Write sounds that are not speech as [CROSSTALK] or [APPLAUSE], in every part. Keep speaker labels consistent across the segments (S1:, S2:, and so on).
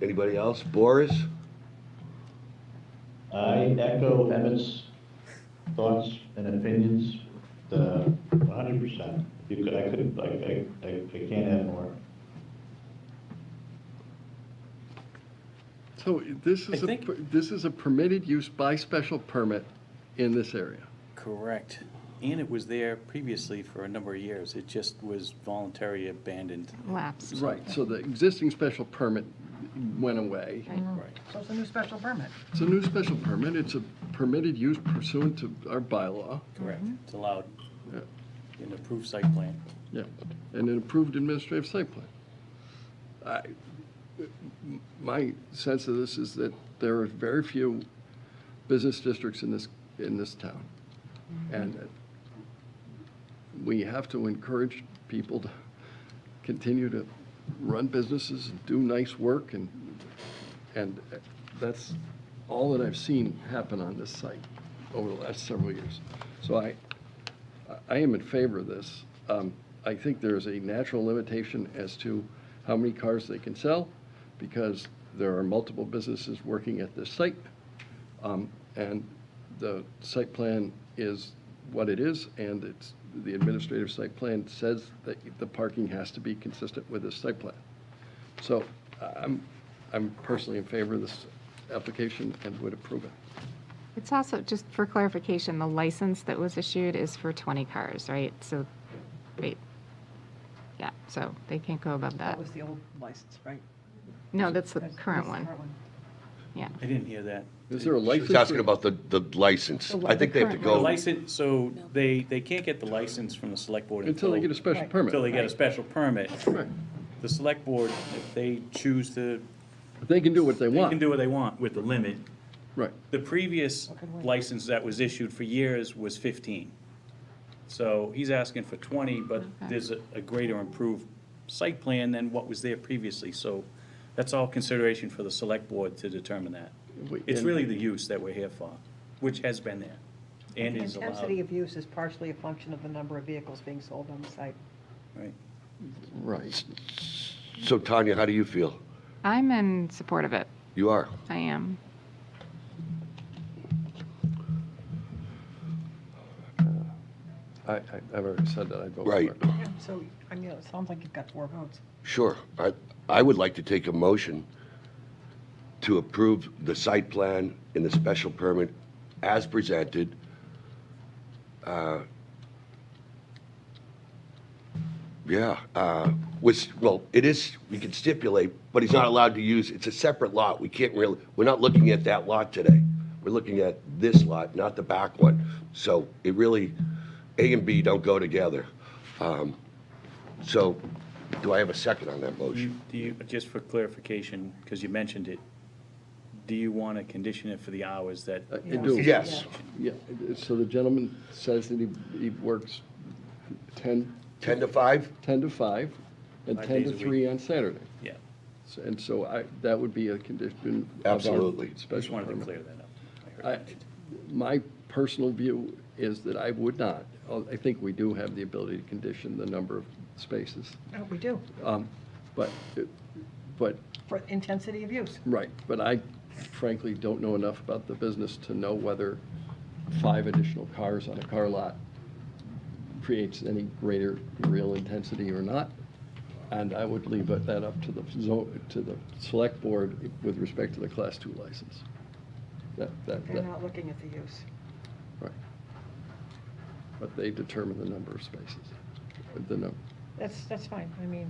S1: Anybody else? Boris?
S2: I echo Emmett's thoughts and opinions, the hundred percent. You could, I could, I, I, I I can't add more.
S3: So this is,
S4: I
S3: a
S4: think-
S3: per- this is a permitted use by special permit in this area.
S4: Correct. And it was there previously for a number of years. It just was voluntary abandoned.
S5: lapsed.
S3: Right, so the existing special permit went away.
S4: Right.
S6: So it's a new special permit.
S3: It's a new special permit, it's a permitted use pursuant to our bylaw,
S4: Correct. It's allowed
S3: Yeah.
S4: in the approved site plan.
S3: yeah, and an approved administrative site plan. I, my sense of this is that there are very few business districts in this, in this town. And that we have to encourage people to continue to run businesses and do nice work and, and that's all that I've seen happen on this site over the last several years. So I, I am in favor of this. Um, I think there is a natural limitation as to how many cars they can sell because there are multiple businesses working at this site. Um, And the site plan is what it is, and it's, the administrative site plan says that the parking has to be consistent with this site plan. So I'm, I'm personally in favor of this application and would approve it.
S5: It's also, just for clarification, the license that was issued is for 20 cars, right? So, wait. Yeah, so they can't go above that.
S6: That was the old license, right?
S5: No, that's Uh, the
S6: That's-
S5: current
S6: that's
S5: one. Yeah.
S4: I didn't hear that.
S3: Is there a
S1: She
S3: license?
S1: was asking about the, the license. I think they have to
S5: The
S4: The
S1: go,
S4: license, so they, they can't get the license from the select board
S3: Until they get a special permit.
S4: Until they get a special permit.
S3: Right.
S4: The select board, if they choose to,
S3: They can do what they
S4: they
S3: want.
S4: can do what they want with the limit.
S3: Right.
S4: The previous license that was issued for years was 15. So he's asking for 20, but there's a a greater improved site plan than what was there previously. So that's all consideration for the select board to determine that.
S3: We-
S4: It's
S3: and-
S4: really the use that we're here for, which has been there and
S6: The
S4: is allowed.
S6: Intensity of use is partially a function of the number of vehicles being sold on the site.
S4: Right.
S3: Right.
S1: so Tanya, how do you feel?
S5: I'm in support of it.
S1: You are?
S5: I am.
S3: I, I- I've already said that, I vote for it.
S1: Right,
S6: So, I mean, it sounds like you've got four votes.
S1: sure. I, I would like to take a motion to approve the site plan and the special permit as presented. Uh, Yeah, uh, which, well, it is, we can stipulate, but he's not allowed to use, it's a separate lot. We can't really, we're not looking at that lot today. We're looking at this lot, not the back one. So it really, A and B don't go together. Um, So do I have a second on that motion?
S4: Do you, just for clarification, because you mentioned it, do you want to condition it for the hours that?
S3: I I do.
S1: Yes,
S3: Yeah, it- it- so the gentleman says that he, he works 10,
S1: 10 to 5?
S3: 10 to 5 and
S4: Five
S3: 10
S4: days
S3: to
S4: a
S3: 3 on Saturday.
S4: Yeah,
S3: So- And so I, that would be a condition of our
S1: Absolutely.
S4: just
S3: special
S4: wanted to
S3: permit.
S4: clear that up.
S3: I- My personal view is that I would not. Oh, I think we do have the ability to condition the number of spaces.
S6: No, Oh, we do,
S3: Um, But, it- but,
S6: for intensity of use.
S3: right, but I frankly don't know enough about the business to know whether five additional cars on a car lot creates any greater real intensity or not. And I would leave it- that up to the, zo- to the select board with respect to the Class two license. That, that,
S6: They're
S3: that-
S6: not looking at the use.
S3: right. But they determine the number of spaces, the number.
S6: That's, that's fine, I mean,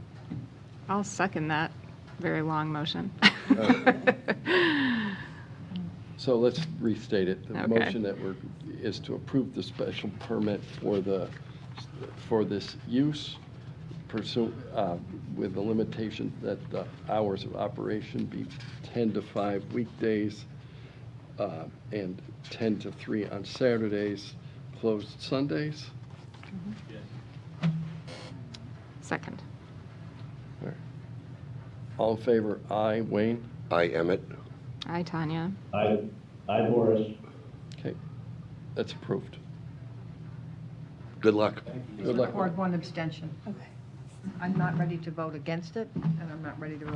S5: I'll second that very long motion.
S3: So let's restate it. The
S5: Okay.
S3: motion that we're, is to approve the special permit for the, for this use pursuant, uh, with the limitation that the hours of operation be 10 to 5 weekdays uh, and 10 to 3 on Saturdays, closed Sundays.
S5: [LAUGHS] Second.
S3: All in favor, aye. Wayne?
S1: I, Emmett.
S5: Hi, Tanya.
S2: I, I Boris.
S3: Okay, that's approved.
S1: Good luck.
S3: Good luck.
S6: one abstention. Okay. I'm not ready to vote against it, and I'm not ready to